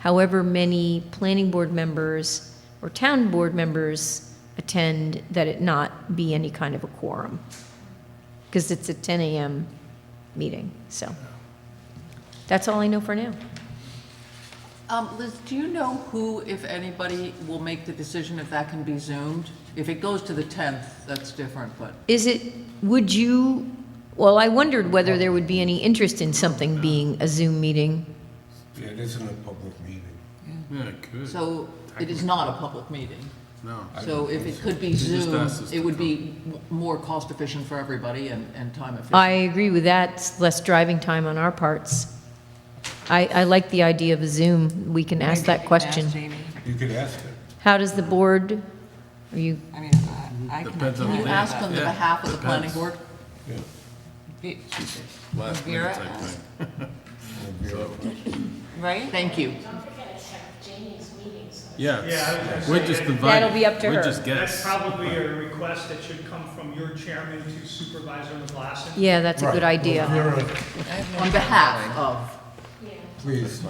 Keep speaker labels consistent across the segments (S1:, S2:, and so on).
S1: however many planning board members or town board members attend, that it not be any kind of a quorum. Because it's a 10 AM meeting, so. That's all I know for now.
S2: Um, Liz, do you know who, if anybody, will make the decision if that can be zoomed? If it goes to the tenth, that's different, but,
S1: Is it, would you, well, I wondered whether there would be any interest in something being a Zoom meeting.
S3: Yeah, it isn't a public meeting.
S4: Yeah, it could.
S2: so it is not a public meeting.
S4: No.
S2: So if it could be
S4: You just
S2: Zoom,
S4: asked us
S2: it
S4: to
S2: would
S4: come.
S2: be m- more cost efficient for everybody and, and time efficient.
S1: I agree with that, it's less driving time on our parts. I, I like the idea of a Zoom, we can ask that question.
S3: You could ask it.
S1: How does the board, are you,
S5: I mean, I
S4: Depends on
S2: Can you
S4: the
S2: ask on the
S4: Yeah,
S2: behalf of the planning
S4: depends.
S2: board?
S3: Yeah.
S4: Last minute
S5: Vera
S4: type
S5: asked.
S4: thing.
S5: Right?
S2: Thank you.
S4: Yeah,
S6: Yeah, I was
S4: we're
S6: gonna
S4: just
S6: say,
S4: invited.
S1: That'll be up to her.
S4: We're just
S6: That's
S4: guests.
S6: probably a request that should come from your chairman to Supervisor McGlasson.
S1: yeah, that's a good
S3: Right.
S1: idea.
S3: Well, Vera,
S2: On behalf of,
S3: Please,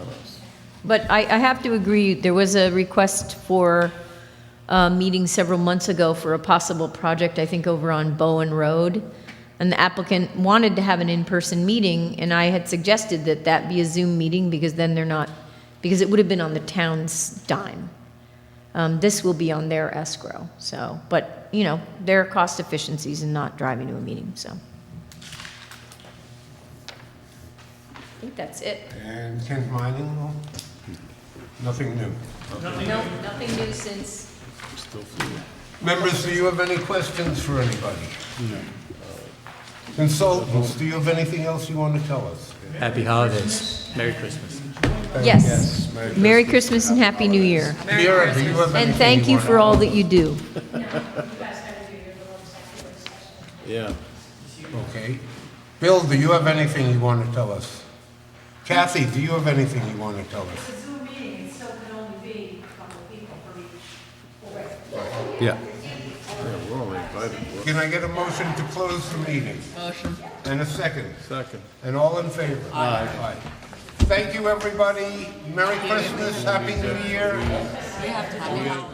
S1: But I, I have to agree, there was a request for a meeting several months ago for a possible project, I think over on Bowen Road. And the applicant wanted to have an in-person meeting, and I had suggested that that be a Zoom meeting, because then they're not, because it would have been on the town's dime. Um, this will be on their escrow, so, but, you know, there are cost efficiencies in not driving to a meeting, so. I think that's it.
S3: and Kent Mining, nothing new.
S1: No, nothing new since.
S3: Members, do you have any questions for anybody? Uh, Consultants, do you have anything else you want to tell us?
S7: Happy holidays. Merry Christmas.
S1: Yes. Merry Christmas and Happy New Year.
S3: Vera, do you have anything
S1: And thank you
S3: want to
S1: for all
S3: add?
S1: that you do.
S4: Yeah.
S3: Okay. Bill, do you have anything you want to tell us? Kathy, do you have anything you want to tell us?
S8: It's a Zoom meeting, it still can only be a couple of people for each board.
S7: Yeah.
S4: We're only invited. We're-
S3: Can I get a motion to close the meeting?
S2: motion.
S3: And a second?
S4: Second.
S3: And all in favor? Aye. Thank you, everybody. Merry Christmas, Happy New Year.
S5: We have to have a-